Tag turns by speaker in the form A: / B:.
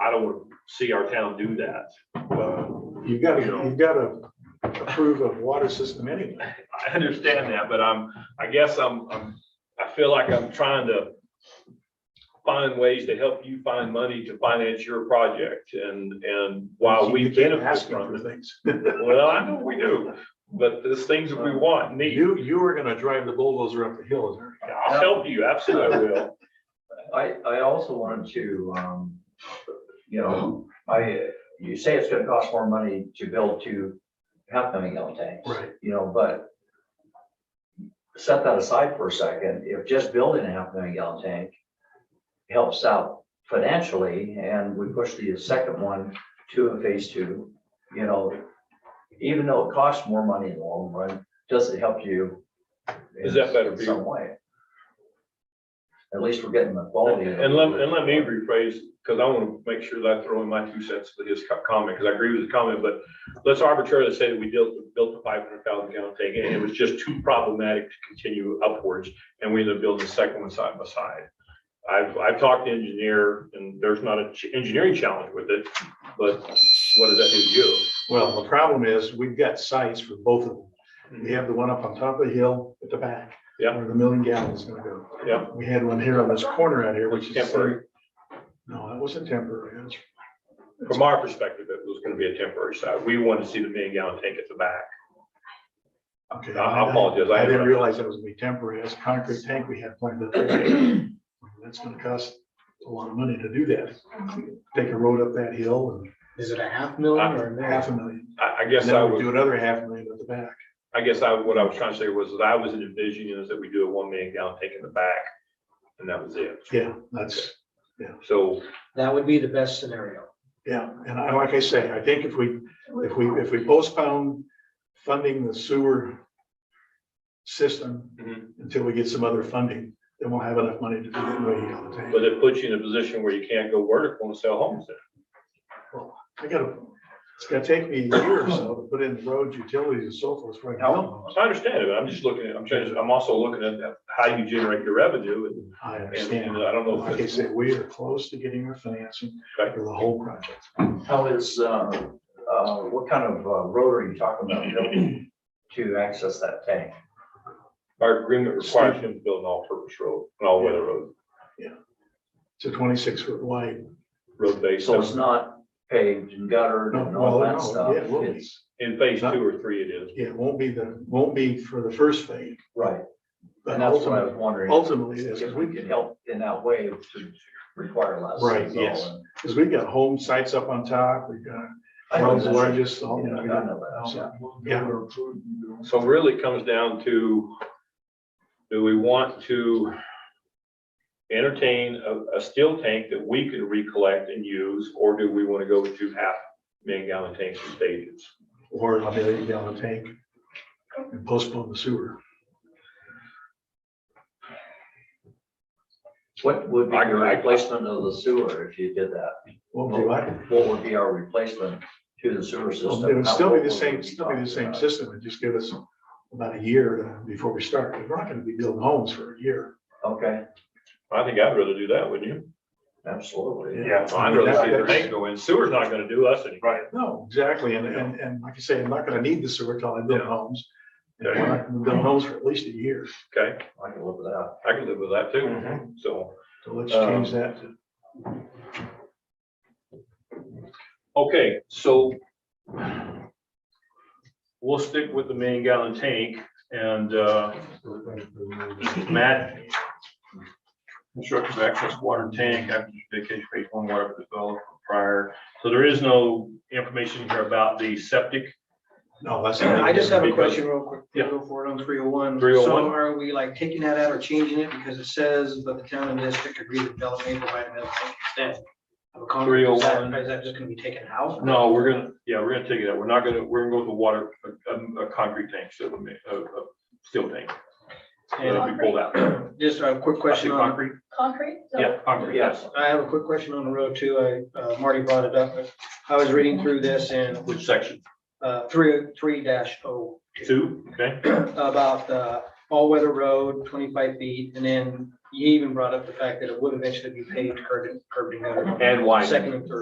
A: I don't want to see our town do that. Uh,
B: You've got, to
A: You know.
B: you've got to approve of water system anyway.
A: I understand that, but I'm, I guess I'm, I'm, I feel like I'm trying to find ways to help you find money to finance your project and, and while we
B: You keep
A: benefit
B: asking
A: from
B: for
A: it.
B: things.
A: Well, I know we do, but there's things that we want, and need.
B: You, you were gonna drive the bulldozer up the hill, isn't it?
A: I'll help you, absolutely I will.
C: I, I also wanted to, um, you know, I, you say it's gonna cost more money to build two half million gallon tanks.
B: Right.
C: You know, but set that aside for a second, if just building a half million gallon tank helps out financially, and we push the second one to a phase two, you know, even though it costs more money in the long run, does it help you? in
A: Is that better, Peter?
C: Some way. At least we're getting the quality. of it.
A: And let, and let me rephrase, because I want to make sure that I throw in my two cents to his co- comment, because I agree with his comment, but let's arbitrarily say that we built, built a five hundred thousand gallon tank, and it was just too problematic to continue upwards, and we ended up building a second one side by side. I've, I've talked to engineer, and there's not a ch- engineering challenge with it, but what does that do to you?
B: Well, the problem is, we've got sites for both of
A: Mm-hmm.
B: them. We have the one up on top of the hill at the back.
A: Yeah.
B: Where the million gallons is gonna go.
A: Yeah.
B: We had one here on this corner out here, which is.
A: Temporary.
B: No, that wasn't temporary. That's-
A: From our perspective, it was gonna be a temporary side. We wanted to see the million gallon tank at the back.
B: Okay.
A: I- I apologize. I-
B: I didn't realize that was gonna be temporary. That's a concrete tank we had planned up there. That's gonna cost a lot of money to do that. Take a road up that hill
D: Is it a half
A: Uh,
D: million or a
B: and
D: million?
B: half a million.
A: I, I
B: And
A: guess I
B: then we
A: would.
B: do another half million at the back.
A: I guess I, what I was trying to say was that I was envisioning is that we do a one million gallon tank in the back, and that was it.
B: Yeah, that's.
A: So,
D: That would be the best scenario.
B: Yeah, and I, like I say, I think if we, if we, if we postpone funding the sewer system
A: Mhm.
B: until we get some other funding, then we'll have enough money to do that million gallon
A: but
B: tank.
A: it puts you in a position where you can't go vertical and sell homes then.
B: I gotta, it's gonna take me a year or so to put in roads, utilities and so forth. right now.
A: I understand it, but I'm just looking at, I'm trying, I'm also looking at that- how you generate your revenue, and,
B: I
A: and
B: understand.
A: and uh, I don't know. if
B: Like I
A: it's-
B: said, we are close to getting our financing
A: Okay.
B: for the whole project.
C: How is, uh, uh, what kind of uh, road are you talking about building to access that tank?
A: Our agreement requires him to build an all-purpose road, an all-weather road,
B: It's a twenty-six foot wide.
A: road base.
C: So it's not paved and guttered
B: No,
C: and all
B: well,
C: that
B: no,
C: stuff.
B: yeah, it will be.
C: It's-
A: In phase two or three it is.
B: Yeah, it won't be the, won't be for the first phase,
C: Right,
B: but
C: and that's what I was
B: ultimately,
C: wondering.
B: ultimately, is
C: If
B: we
C: we could help in that way to require less.
B: Right,
C: is all.
B: yes. Because we've got home sites up on top, we've got
C: I know
B: world's
C: that.
B: largest. all-
C: Yeah, I know that.
B: So,
D: Yeah.
A: So really it comes down to, do we want to entertain a, a steel tank that we can recollect and use, or do we want to go to half million gallon tanks and stages?
B: Or a million gallon tank and postpone the sewer.
C: What would be
A: I-
C: your
A: I-
C: replacement of the sewer if you did that?
B: Won't do it.
C: What would be our replacement to the sewer system?
B: It would still be
C: How-
B: the same, still be the same system, it'd just give us about a year to- before we start. We're not gonna be building homes for a year.
C: Okay,
A: I think I'd rather do that, wouldn't you?
C: absolutely.
B: Yeah.
A: I'd rather see the tank go in. Sewer's not going to do us any. Right.
B: No, exactly, and, and, and like I say, I'm not gonna need the sewer till I build
A: Yeah.
B: homes. And
A: Okay.
B: we're not gonna build homes for at least a year,
A: Okay,
C: I can live with that.
A: I can live with that too. So,
B: so let's change
A: Um,
B: that to
A: okay, so we'll stick with the million gallon tank and, uh, Matt. Construction of access water tank after vacation phase one water developed prior. So there is no information here about the septic.
B: No, that's.
D: I just have a
A: Because-
D: question real quick.
A: Yeah.
D: Go for it on three oh one.
A: 301.
D: So are we like taking that out or changing it because it says, but the town and district agree that Bella may provide a medical tank instead? of a concrete. Is that-
A: 301.
D: Is that just gonna be taken out?
A: No, we're gonna, yeah, we're gonna take it out. We're not gonna, we're gonna go with the water, a, a- a concrete tank, so we may- a, a steel tank.
D: And
A: That'll be pulled out.
D: just a quick question on,
A: Concrete?
E: Concrete? So-
A: Yeah, concrete, yes.
D: I have a quick question on the road too. I, uh, Marty brought it up. but I was reading through this and,
A: Which section?
D: uh, three, three dash oh
A: Two, okay?
D: about the all-weather road, twenty-five feet, and then you even brought up the fact that it would eventually be paved curb and curb and gutter.
A: And wide.
D: Second and third.